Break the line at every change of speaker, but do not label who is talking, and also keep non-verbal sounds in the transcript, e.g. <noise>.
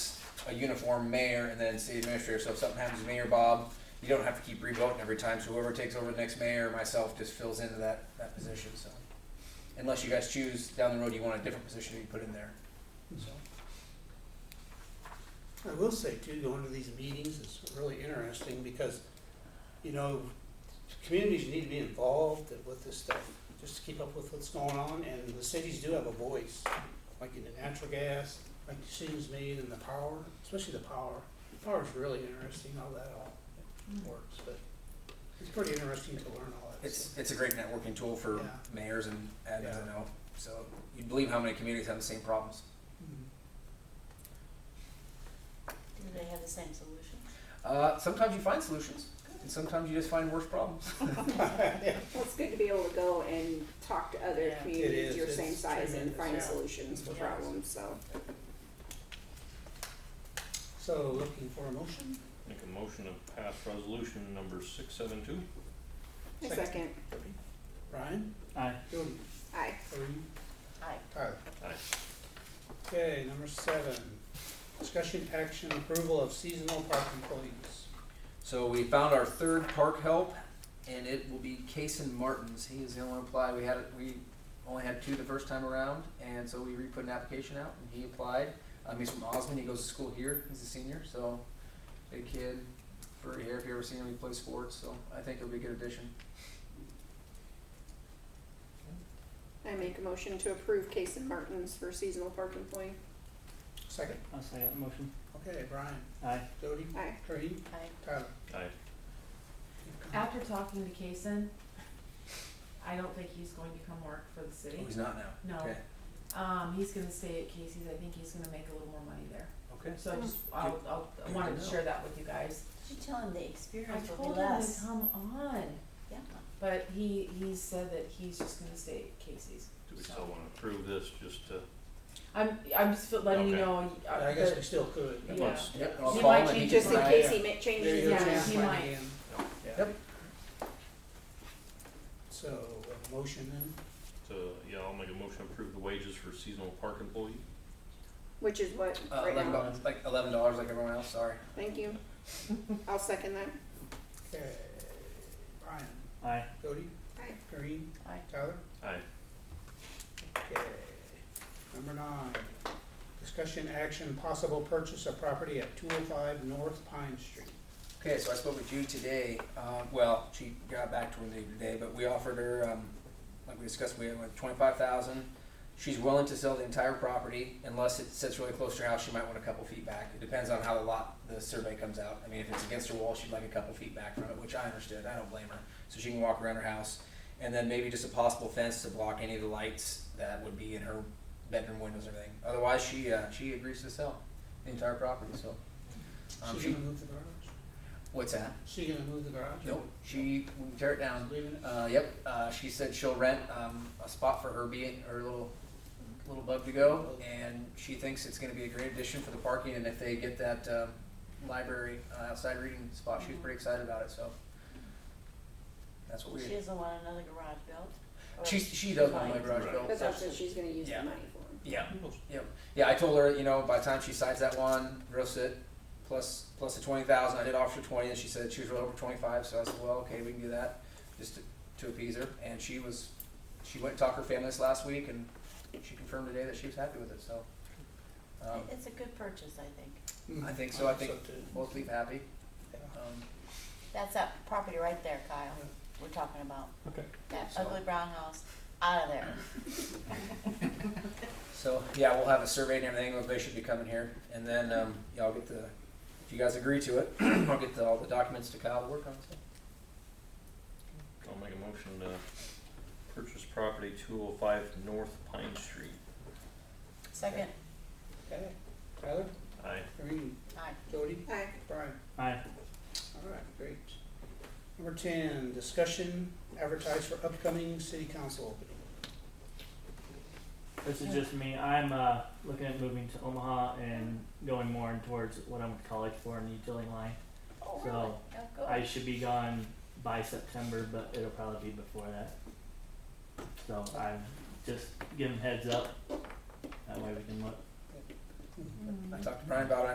a uniform mayor and then city administrator, so if something happens to me or Bob, you don't have to keep revoting every time, so whoever takes over the next mayor, or myself, just fills into that, that position, so. Unless you guys choose down the road, you want a different position to be put in there, so.
I will say too, going to these meetings is really interesting because, you know, communities need to be involved with this stuff, just to keep up with what's going on, and the cities do have a voice, like in the natural gas, like decisions made in the power, especially the power. Power's really interesting, how that all
Mm-hmm.
works, but it's pretty interesting to learn all that
It's
stuff.
it's a great networking tool for
Yeah.
mayors and admins I
Yeah.
know. So you'd believe how many communities have the same problems.
Mhm.
Do they have the same solution?
Uh, sometimes you find solutions, and sometimes you just find worse problems. <laughs>
Well, it's good to be able to go and talk to other
Yeah.
It
communities
is.
your
It's
same size and
tremendous.
find
Yeah.
solutions for
Yeah.
problems, so.
So looking for a motion?
Make a motion to pass resolution number six seven two.
A
Second.
Second,
Ryan?
Aye.
Jody?
aye.
Kareem?
Aye.
Tyler?
Aye.
Okay, number seven, discussion action approval of seasonal park employees.
So we found our third park help, and it will be Kason Martins. He is the only one apply. We had we only had two the first time around, and so we re-put an application out, and he applied. Um, he's from Osmond. He goes to school here. He's a senior, so big kid. For here, if you ever seen him, he plays sports. So I think it'll be a good addition.
I make a motion to approve Case and Martins for seasonal park employee.
Second,
I'll say that motion.
okay, Brian,
Aye.
Jody,
Aye.
Kareem,
Aye.
Tyler.
Aye.
After talking to Kason, I don't think he's going to come work for the
Oh,
city.
he's not now.
No.
Okay.
Um, he's gonna stay at Casey's, I think he's gonna make a little more money there.
Okay.
So I just, I'll, I'll, I
Good
wanted
to
to
know.
share that with you guys.
Did you tell him the
I
experience will
told
be
him to
less?
come on,
Yeah.
but he, he said that he's just gonna stay at Casey's.
Do we
So-
still wanna approve this just to,
I'm, I'm just letting you
Okay.
know, uh,
I guess we
that-
still could.
Yeah.
let's,
Yep. I'll
He
call
might
him and can
change his
Just in
provide-
case he ma-
There you
changes
go,
Yeah,
his
chance
mind.
he
might
might.
be in.
Yep.
So, a motion then,
to, yeah, I'll make a motion to approve the wages for seasonal park employee.
Which is what,
Uh,
right
eleven
now,
dollars, like eleven dollars, like everyone else. Sorry.
thank you. I'll second that.
okay, Brian,
Aye.
Jody,
Aye.
Kareem,
Aye.
Tyler.
Aye.
Okay, number nine, discussion action possible purchase of property at two oh five North Pine Street.
Okay, so I spoke with Jude today. Um, well, she got back to me today, but we offered her, um, like we discussed, we had like twenty-five thousand. She's willing to sell the entire property unless it sits really close to her house. She might want a couple feet back. It depends on how the lot, the survey comes out. I mean, if it's against her wall, she'd like a couple feet back from it, which I understood. I don't blame her. So she can walk around her house, and then maybe just a possible fence to block any of the lights that would be in her bedroom windows and everything. Otherwise, she uh, she agrees to sell the entire property. So, um,
She
she,
gonna move the garage?
what's that?
She gonna move the garage?
Nope, she, we can tear it down.
Leaving it?
Uh, yep, uh, she said she'll rent, um, a spot for her being, her little, little bug to go. And she thinks it's gonna be a great addition for the parking and if they get that, um, library, uh, outside reading spot, she was pretty excited about it, so. That's what we,
She doesn't want another garage built? Or-
she, she does want my garage
Right.
built.
But that's what she's gonna use
Yeah.
the money for.
Yeah,
Most-
yeah, I told her, you know, by the time she signs that one, gross it, plus, plus the twenty thousand, I did offer her twenty, and she said she was really over twenty-five, so I said, well, okay, we can do that, just to, to appease her, and she was, she went and talked to her family this last week, and she confirmed today that she was happy with it, so. Um,
It's a good purchase, I think.
Hmm.
I think so, I think
too.
both leave happy,
Yeah.
um,
That's that property right there, Kyle,
Yeah.
we're talking about.
Okay.
That
So-
ugly brown house, out of there.
so, yeah, we'll have a survey and everything, they should be coming here, and then, um, y'all get the, if you guys agree to it, <clears throat> I'll get the, all the documents to Kyle to work on, so.
I'll make a motion to purchase property two oh five North Pine Street.
Second,
Okay, Tyler,
Aye.
Kareem,
aye.
Jody,
Aye.
Brian,
Aye.
all right, great. Number ten, discussion, advertise for upcoming city council opening.
This is just me. I'm uh, looking at moving to Omaha and going more towards what I went to college for in the utility line.
Oh,
So,
really? Oh, good.
I should be gone by September, but it'll probably be before that. So I'm just giving heads up. That way we can look
I talked to Brian about it,